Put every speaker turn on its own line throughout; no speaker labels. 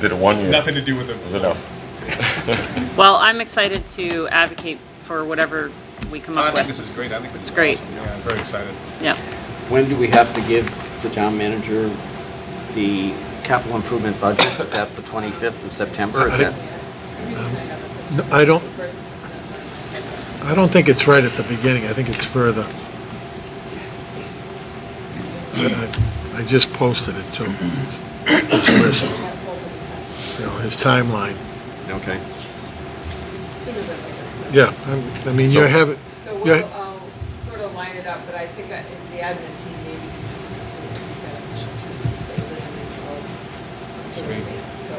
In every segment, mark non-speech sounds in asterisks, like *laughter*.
Did it one year.
Nothing to do with it.
It was enough. *laughs*
Well, I'm excited to advocate for whatever we come
I
up with.
think this is great. I think this
It's
is
great,
awesome. Yeah, I'm very excited.
yeah.
When do we have to give the town manager the capital improvement budget? Is that the 25th of September? Is
I
that,
think- No, I don't, I don't think it's right at the beginning, I think it's further. I- I I just posted it too. Just listen. You know, his timeline.
okay.
Sooner than later, so.
Yeah, I'm- I mean, you have it,
So
yeah.
we'll um, sort of line it up, but I think that if the admin team maybe can do that official too, since they live in these roads on a daily
Sweet.
basis. So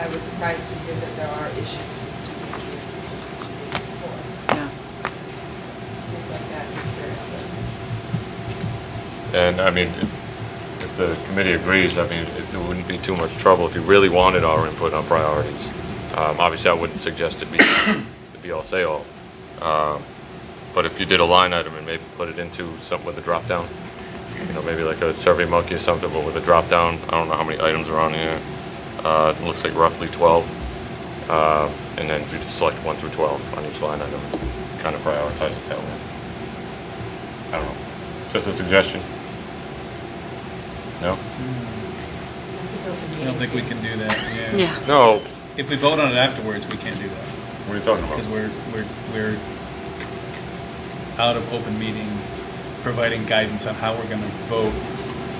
I was surprised to hear that there are issues with student injuries and issues with before,
Yeah.
things like that. very often.
And I mean, if if the committee agrees, I mean, it it wouldn't be too much trouble if you really wanted our input on priorities. Um, Obviously, I wouldn't suggest it be, *coughs* it be all say all. Um, But if you did a line item and maybe put it into something with a drop down, you know, maybe like a survey monkey or something, but with a drop down, I don't know how many items are on here. Uh, It looks like roughly 12. Uh, And then you just select one through 12 on each line item, kind of prioritize it that way. I don't know. Just a suggestion. No?
I don't think we can do that, yeah.
Yeah.
No.
If we vote on it afterwards, we can't do that,
What are you talking
because we're, we're, we're out of open meeting, providing guidance on how we're gonna vote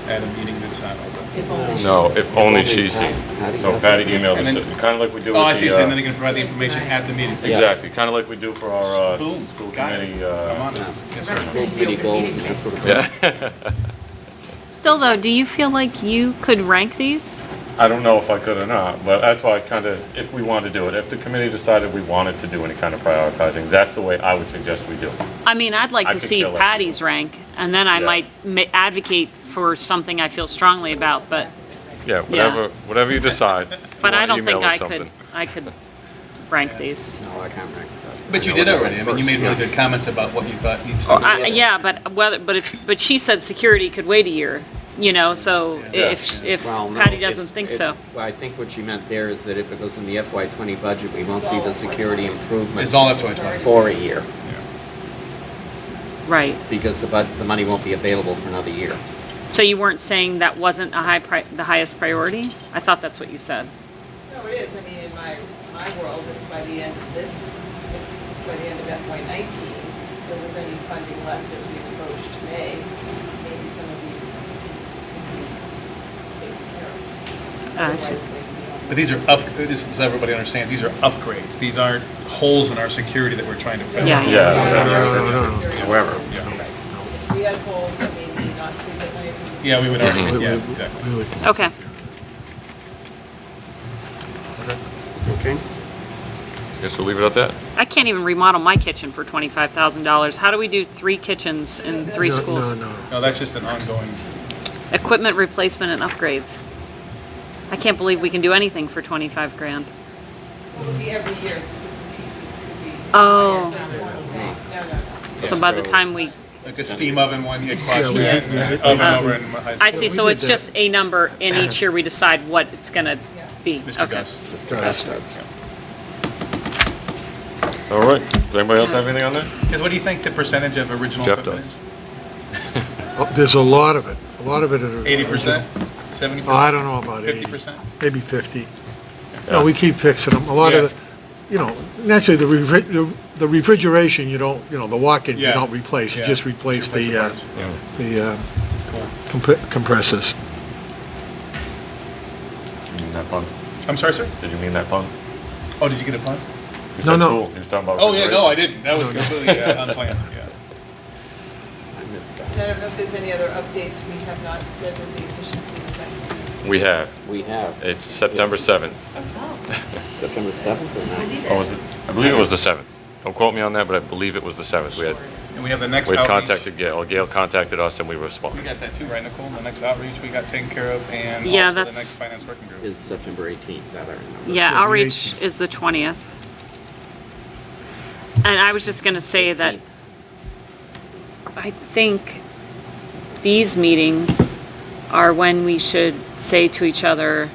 at a meeting that's not open.
If only-
No, if only she's
Patty-
here.
Patty
So
does
Patty
it.
emailed us,
And then-
kind of like we do with the...
Oh, I see, so
uh,
then they can provide the information at the meeting.
Yeah.
Exactly, kind of like we do for our uh,
Boom,
school
got it.
committee.
I'm on
uh,
it. Yes, sir.
Goals, committee goals, and that sort of thing.
Yeah. *laughs*
Still though, do you feel like you could rank these?
I don't know if I could or not, but that's why I kind of, if we want to do it, if the committee decided we wanted to do any kind of prioritizing, that's the way I would suggest we do. it.
I mean, I'd like
I
to
could
see
kill it.
Patty's rank, and then I
Yeah.
might ma- advocate for something I feel strongly about, but,
Yeah, whatever, whatever you decide. you
but I
wanna
don't think
email us
I could,
something.
I could rank these.
No, I can't remember.
But you did already, I mean, you made really good comments about what you thought needs
Oh,
to
I-
be.
Yeah, but whether, but if, but she said security could wait a year, you know, so i-
Yeah.
if, if
Well, no,
Patty
it's-
doesn't think
it-
so.
Well, I think what she meant there is that if it goes in the FY '20 budget, we
This
won't
is
see
all
the
FY20.
security
It's
improvement
all F twenty-five.
for a year,
Right.
because the bud, the money won't be available for another year.
So you weren't saying that wasn't a high pri, the highest priority? I thought that's what you said.
No, it is, I mean, in my, my world, if by the end of this, if by the end of FY nineteen, there was any funding left as we approached May, maybe some of these pieces could be taken care of.
Ah, I see.
Otherwise, they-
But these are up, this is, so everybody understands, these are upgrades. These aren't holes in our security that we're trying to fill.
Yeah.
Yeah.
However,
If we had holes that maybe not significant.
Yeah, we would
we-
argue,
we-
yeah, exactly.
we would-
Okay.
okay.
Guess we'll leave it at that.
I can't even remodel my kitchen for twenty-five thousand dollars. How do we do three kitchens in three
no,
schools?
No, no.
No, that's just an ongoing,
Equipment replacement and upgrades. I can't believe we can do anything for twenty-five grand.
It would be every year, so different pieces could be.
Oh.
So it's one thing. No, no, no.
So by the
So-
time we,
like a steam oven one, you
Yeah,
question
we
that,
did- we did-
oven over in high school.
Um, I see,
we
so
did
it's
that.
just a number
*coughs*
and each year we decide what it's gonna
Yeah.
be.
Mr.
Okay.
Gus.
Does.
All right. Does anybody else have anything on that?
Because what do you think the percentage of original
Jeff
equipment
does.
is?
Oh, There's a lot of it, a lot of it. are-
Eighty percent, seventy
Oh, I
percent?
don't know about 80.
50%?
Maybe 50. No, we keep fixing them. A lot
Yeah.
of, the you know, naturally, the refri- the the refrigeration, you don't, you know, the walk-in, you
Yeah.
don't replace, you
Yeah.
just replace the, uh,
parts.
the um,
Cool.
comp- compressors.
Did you mean that pun?
I'm sorry, sir?
Did you mean that pun?
Oh, did you get a pun?
You
No,
said
no.
cool. He was talking about
Oh, yeah, no, I
refrigeration.
didn't. That was completely uh, unplanned, yeah.
I missed that.
And I don't know if there's any other updates. We have not scheduled the efficiency and effectiveness.
We have.
We have
It's September 7th.
September 7th or 9th?
Oh, was it? I believe it was the 7th. Don't quote me on that, but I believe it was the 7th. We had,
And we have the next
we had
outreach.
contacted Gail. Gail contacted us and we
We
responded.
got that too, right, Nicole? The next outreach we got taken care of and
Yeah,
also the
that's-
next finance working group.
Is September 18th, that I remember.
Yeah,
Yeah, the
outreach
18th.
is the 20th. And I was just going to say that
18th.
I think these meetings are when we should say to each other,